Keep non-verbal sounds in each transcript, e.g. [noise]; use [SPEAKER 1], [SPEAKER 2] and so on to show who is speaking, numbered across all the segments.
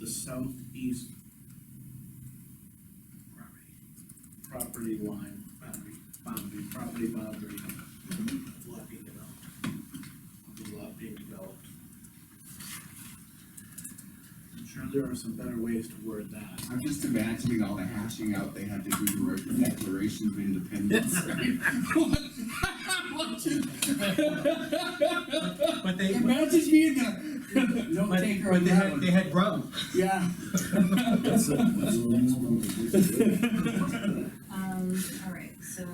[SPEAKER 1] the southeast property line, boundary, boundary, property boundary of lot being developed. Of the lot being developed. I'm sure there are some better ways to word that.
[SPEAKER 2] I'm just imagining all the hashing out they had to do to write the Declaration of
[SPEAKER 3] [laughs]
[SPEAKER 2] Independence.
[SPEAKER 3] But they,
[SPEAKER 2] Imagine being [laughs] the note
[SPEAKER 3] but
[SPEAKER 2] taker on
[SPEAKER 3] they
[SPEAKER 2] that
[SPEAKER 3] had,
[SPEAKER 2] one.
[SPEAKER 3] they had grub.
[SPEAKER 2] Yeah.
[SPEAKER 1] That's it, that's the next one.
[SPEAKER 4] Um, all right, so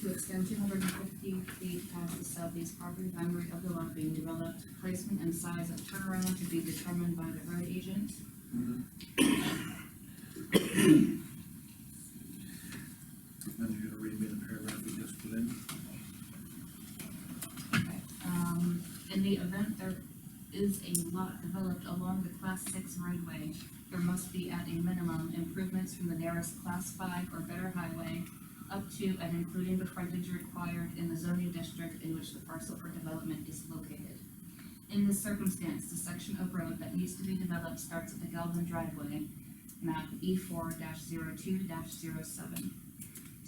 [SPEAKER 4] to extend two hundred and fifty feet past the southeast property boundary of the lot being developed, placement and size of turnaround to be determined by the road agent.
[SPEAKER 1] Then you're gonna read me the paragraph we just put in.
[SPEAKER 4] Okay, Um, in the event there is a lot developed along the class six roadway, there must be at a minimum improvements from the nearest class five or better highway up to and including the frontage required in the zoning district in which the parcel for development is located. In this circumstance, the section of road that needs to be developed starts at the Galvin driveway, map E four 2 7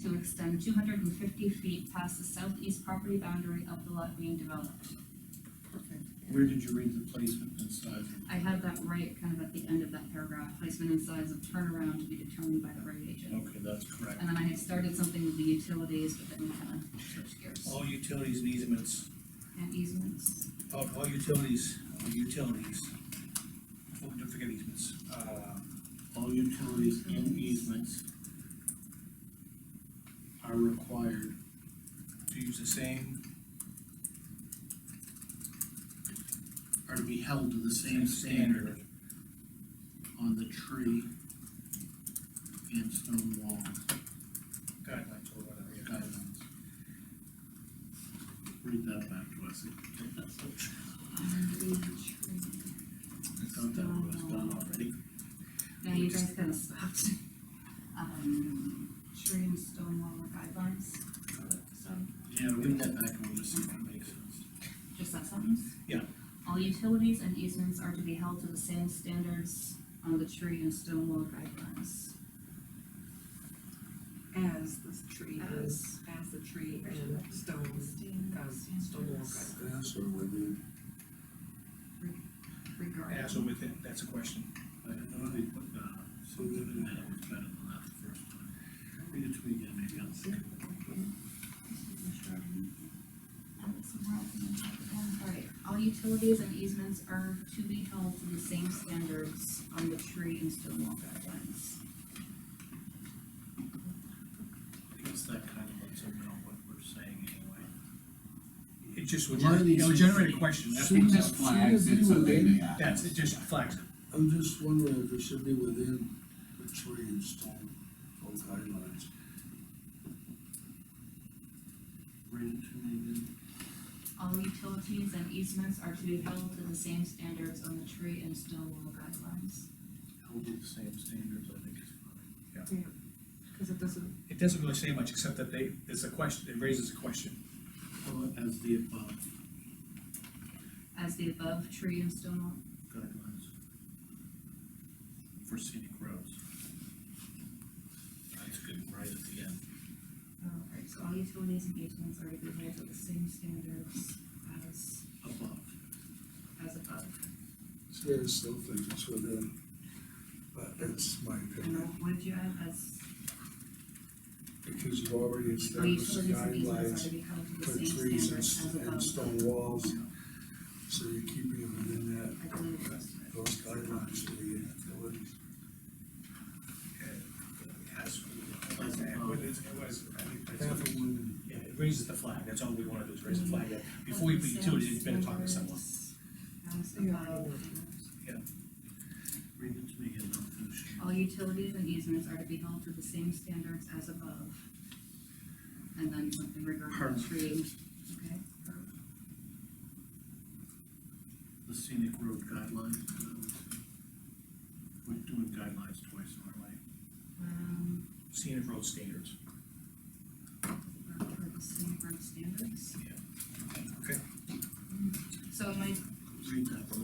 [SPEAKER 4] to extend two hundred and fifty feet past the southeast property boundary of the lot being developed.
[SPEAKER 1] Where did you read the placement and size?
[SPEAKER 4] I had that right kind of at the end of that paragraph, placement and size of turnaround to be determined by the road agent.
[SPEAKER 1] Okay, that's correct.
[SPEAKER 4] And then I had started something with the utilities, but then we kind of switched gears.
[SPEAKER 1] All utilities and easements,
[SPEAKER 4] And easements,
[SPEAKER 1] all, all utilities, all utilities. Oh, don't forget easements. Uh, All utilities and easements are required to use the same are to be held to the same standard on the tree and stone wall
[SPEAKER 3] Guidelines or whatever.
[SPEAKER 1] guidelines. Read that back to [laughs] us.
[SPEAKER 4] and the tree.
[SPEAKER 1] I thought that was done already.
[SPEAKER 4] Now you guys kind of stopped. Um, tree and stone wall guidelines, so.
[SPEAKER 1] Yeah, read that back and we'll just see if it makes sense.
[SPEAKER 4] Just that sentence?
[SPEAKER 1] Yeah.
[SPEAKER 4] All utilities and easements are to be held to the same standards on the tree and stone wall guidelines.
[SPEAKER 5] As the tree
[SPEAKER 6] As-
[SPEAKER 5] is, as the tree and stones, as stone wall guidelines.
[SPEAKER 2] That's what we did.
[SPEAKER 4] Regarding.
[SPEAKER 3] As or within, that's a question.
[SPEAKER 1] I don't know if they put, uh, so good in that, it was better than that the first time. Read it to me again, maybe I'll see.
[SPEAKER 4] Alright, all utilities and easements are to be held to the same standards on the tree and stone wall guidelines.
[SPEAKER 1] I guess that kind of lets them know what we're saying anyway.
[SPEAKER 3] It just would,
[SPEAKER 1] Why are
[SPEAKER 3] it would
[SPEAKER 1] these-
[SPEAKER 3] generate a question, that's,
[SPEAKER 2] It
[SPEAKER 3] what-
[SPEAKER 2] just flags it so they may act.
[SPEAKER 3] that's, it just flags it.
[SPEAKER 7] I'm just wondering if it should be within the tree and stone, stone guidelines.
[SPEAKER 1] Read it to me again.
[SPEAKER 4] All utilities and easements are to be held to the same standards on the tree and stone wall guidelines.
[SPEAKER 1] Hold to the same standards, I think is fine.
[SPEAKER 5] Cause it doesn't,
[SPEAKER 3] It doesn't really say much, except that they, it's a question, it raises a question.
[SPEAKER 1] Follow as the above
[SPEAKER 4] As the above tree and stone wall
[SPEAKER 1] guidelines for scenic roads. That's good, right at the end.
[SPEAKER 4] Alright, so all utilities and easements are to be held to the same standards as,
[SPEAKER 1] Above.
[SPEAKER 4] as above.
[SPEAKER 7] See, I still think it's within, but it's my
[SPEAKER 4] And
[SPEAKER 7] opinion,
[SPEAKER 4] would you add as,
[SPEAKER 7] because you've already
[SPEAKER 4] all
[SPEAKER 7] established the
[SPEAKER 4] utilities and easements are to
[SPEAKER 7] guidelines
[SPEAKER 4] be held to
[SPEAKER 7] for
[SPEAKER 4] the same
[SPEAKER 7] trees and,
[SPEAKER 4] standards as
[SPEAKER 7] s- and
[SPEAKER 4] above?
[SPEAKER 7] stone walls. So you're keeping it within that,
[SPEAKER 4] I believe the rest of it.
[SPEAKER 7] those guidelines for the utilities.
[SPEAKER 3] As, it was, it was, I think that's-
[SPEAKER 7] Half a woman.
[SPEAKER 3] yeah, it raises the flag, that's all we wanna do, is raise the flag, that before we put utility, it's better talk to someone.
[SPEAKER 4] As above.
[SPEAKER 1] Read it to me again, I'll finish it.
[SPEAKER 4] All utilities and easements are to be held to the same standards as above. And then something regarding
[SPEAKER 1] Curb.
[SPEAKER 4] trees, okay?
[SPEAKER 1] the scenic road guidelines. um, We're doing guidelines twice, aren't we?
[SPEAKER 4] Um,
[SPEAKER 3] Scenic road standards.
[SPEAKER 4] or for the same road standards.
[SPEAKER 3] Okay.
[SPEAKER 4] So am I
[SPEAKER 1] Read that one